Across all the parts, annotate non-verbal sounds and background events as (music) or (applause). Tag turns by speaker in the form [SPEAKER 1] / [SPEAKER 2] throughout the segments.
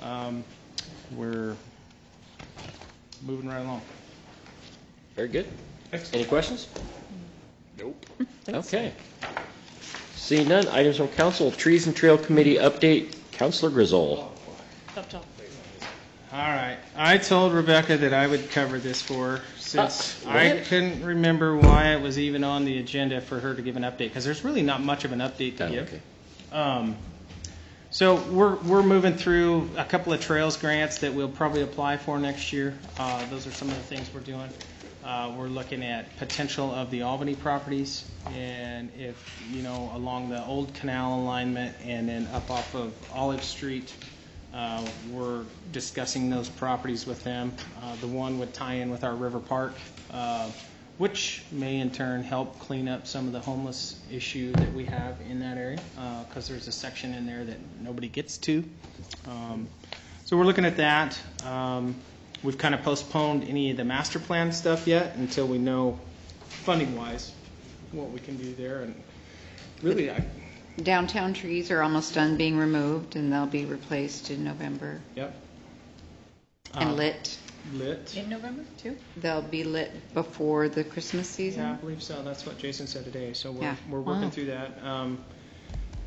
[SPEAKER 1] Um, We're moving right along.
[SPEAKER 2] Very good. Any questions?
[SPEAKER 1] Nope.
[SPEAKER 2] Okay. Seeing none, items from council, Trees and Trail Committee update, Counselor Griswold.
[SPEAKER 3] Up top.
[SPEAKER 1] All right. I told Rebecca that I would cover this for her since
[SPEAKER 2] Uh,
[SPEAKER 1] I
[SPEAKER 2] what?
[SPEAKER 1] couldn't remember why it was even on the agenda for her to give an update because there's really not much of an update
[SPEAKER 2] Oh,
[SPEAKER 1] to give.
[SPEAKER 2] okay.
[SPEAKER 1] Um, So we're, we're moving through a couple of trails grants that we'll probably apply for next year. Uh, Those are some of the things we're doing. Uh, We're looking at potential of the Albany properties and if, you know, along the old canal alignment and then up off of Olive Street. uh, We're discussing those properties with them. Uh, The one would tie in with our River Park, uh, which may in turn help clean up some of the homeless issue that we have in that area, because there's a section in there that nobody gets to. Um, So we're looking at that. Um, We've kind of postponed any of the master plan stuff yet until we know funding-wise what we can do there. And really, I,
[SPEAKER 4] Downtown trees are almost done being removed, and they'll be replaced in November
[SPEAKER 1] yep.
[SPEAKER 4] and
[SPEAKER 1] Um,
[SPEAKER 4] lit.
[SPEAKER 1] Lit.
[SPEAKER 3] In November, too?
[SPEAKER 4] They'll be lit before the Christmas
[SPEAKER 1] Yeah, I
[SPEAKER 4] season.
[SPEAKER 1] believe so. That's what Jason said today. So we're,
[SPEAKER 4] Yeah.
[SPEAKER 1] we're working
[SPEAKER 4] Wow.
[SPEAKER 1] through that. Um,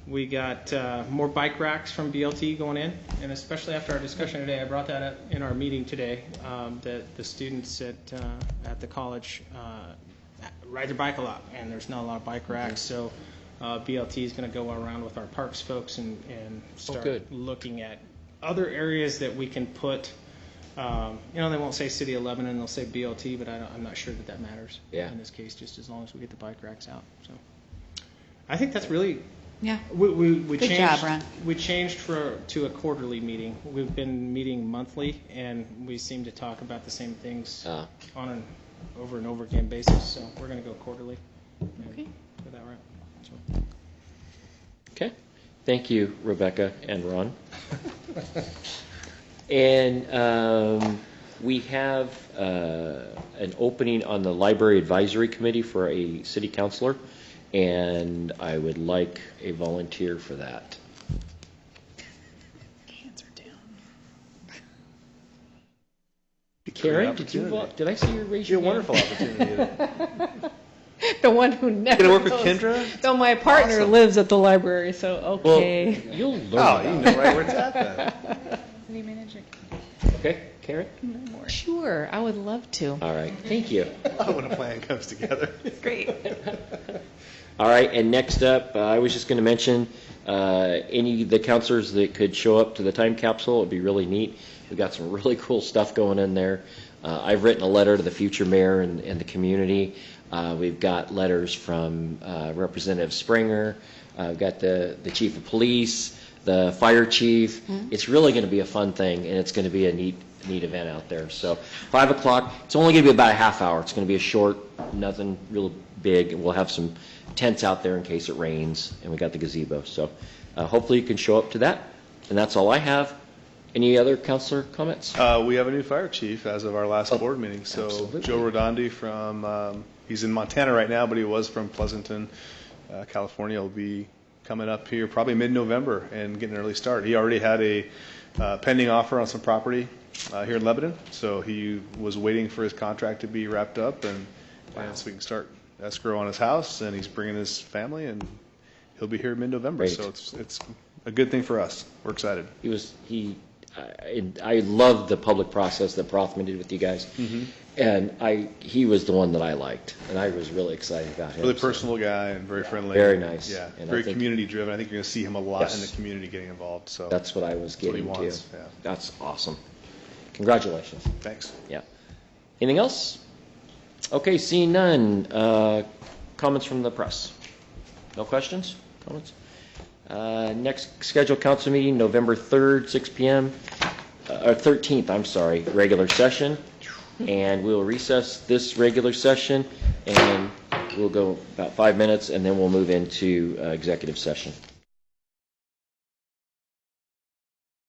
[SPEAKER 1] we got uh, more bike racks from BLT going in, and especially after our discussion today, I brought that up in our meeting today, um, that the students at, uh, at the college uh, ride their bike a lot, and there's not a lot of bike racks. So uh, BLT is going to go around with our parks folks and, and
[SPEAKER 4] Oh,
[SPEAKER 2] good.
[SPEAKER 1] start looking at other areas that we can put, um, you know, they won't say City of Lebanon, they'll say BLT, but I don't, I'm not sure that that matters.
[SPEAKER 2] Yeah.
[SPEAKER 1] In this case, just as long as we get the bike racks out, so. I think that's really,
[SPEAKER 4] Yeah.
[SPEAKER 1] we, we, we
[SPEAKER 4] Good
[SPEAKER 1] changed.
[SPEAKER 4] job, Ron.
[SPEAKER 1] We changed for, to a quarterly meeting. We've been meeting monthly, and we seem to talk about the same things
[SPEAKER 2] Uh,
[SPEAKER 1] on an over and over again basis, so we're gonna go quarterly. and
[SPEAKER 3] Okay.
[SPEAKER 1] Get that right. So,
[SPEAKER 2] Okay. Thank you, Rebecca and Ron. And um, we have uh, an opening on the Library Advisory Committee for a city councillor, and I would like a volunteer for that.
[SPEAKER 3] Hands are down.
[SPEAKER 2] Karen, did you, vol- did I see you raise
[SPEAKER 5] Be a
[SPEAKER 2] your hand?
[SPEAKER 5] wonderful opportunity. to-
[SPEAKER 3] (laughs) The one who never.
[SPEAKER 5] Gonna work with
[SPEAKER 3] knows.
[SPEAKER 5] Kendra? Oh,
[SPEAKER 3] Though my partner
[SPEAKER 5] Awesome.
[SPEAKER 3] lives at the library, so
[SPEAKER 2] Well,
[SPEAKER 3] okay.
[SPEAKER 2] you'll learn
[SPEAKER 5] Oh, you
[SPEAKER 2] about
[SPEAKER 5] know right where it's at
[SPEAKER 3] (laughs)
[SPEAKER 5] then.
[SPEAKER 3] City manager,
[SPEAKER 2] it. Okay, Karen?
[SPEAKER 3] Sure, I would love to.
[SPEAKER 2] All right, thank you.
[SPEAKER 5] Oh, when a plan comes together.
[SPEAKER 3] Great.
[SPEAKER 2] All right, and next up, uh, I was just going to mention, uh, any of the counselors that could show up to the time capsule, it'd be really neat. We've got some (laughs) really cool stuff going in there. Uh, I've written a letter to the future mayor and, and the community. Uh, We've got letters from uh, Representative Springer. Uh, We've got the, the chief of police, the fire chief. It's really going to be a fun thing, and it's going to be a neat, neat event out there. So 5 o'clock, it's only going to be about a half hour. It's going to be a short, nothing real big, and we'll have some tents out there in case it rains, and we got the gazebo. So uh, hopefully you can show up to that, and that's all I have. Any other counselor comments?
[SPEAKER 5] Uh, we have a new fire chief as of our last board meeting. So
[SPEAKER 2] Oh, absolutely.
[SPEAKER 5] Joe Rodondi from, um, he's in Montana right now, but he was from Pleasanton, uh, California. Will be coming up here probably mid-November and getting an early start. He already had a uh, pending offer on some property uh, here in Lebanon. So he was waiting for his contract to be wrapped up and, and so we can start escrow on his house. And he's bringing his family and he'll be here mid-November.
[SPEAKER 2] Great.
[SPEAKER 5] So it's, it's a good thing for us. We're excited.
[SPEAKER 2] He was, he, I, I love the public process that Prothman did with you guys. And I, he was the one that I liked, and I was really excited about him.
[SPEAKER 5] Really
[SPEAKER 2] So-
[SPEAKER 5] personal guy and very friendly.
[SPEAKER 2] Very nice.
[SPEAKER 5] Yeah,
[SPEAKER 2] And I
[SPEAKER 5] very
[SPEAKER 2] think-
[SPEAKER 5] community driven. I think you're going to see him a lot in
[SPEAKER 2] Yes.
[SPEAKER 5] the community getting involved. So
[SPEAKER 2] That's what I was
[SPEAKER 5] what he
[SPEAKER 2] getting to.
[SPEAKER 5] wants, yeah.
[SPEAKER 2] That's awesome. Congratulations.
[SPEAKER 5] thanks.
[SPEAKER 2] Yeah. Anything else? Okay, seeing none. Uh, Comments from the press? No questions? Comments? Uh, Next scheduled council meeting, November 3rd, 6 PM, uh, or 13th, I'm sorry, regular session. And we'll recess this regular session, and we'll go about five minutes, and then we'll move into uh, executive session.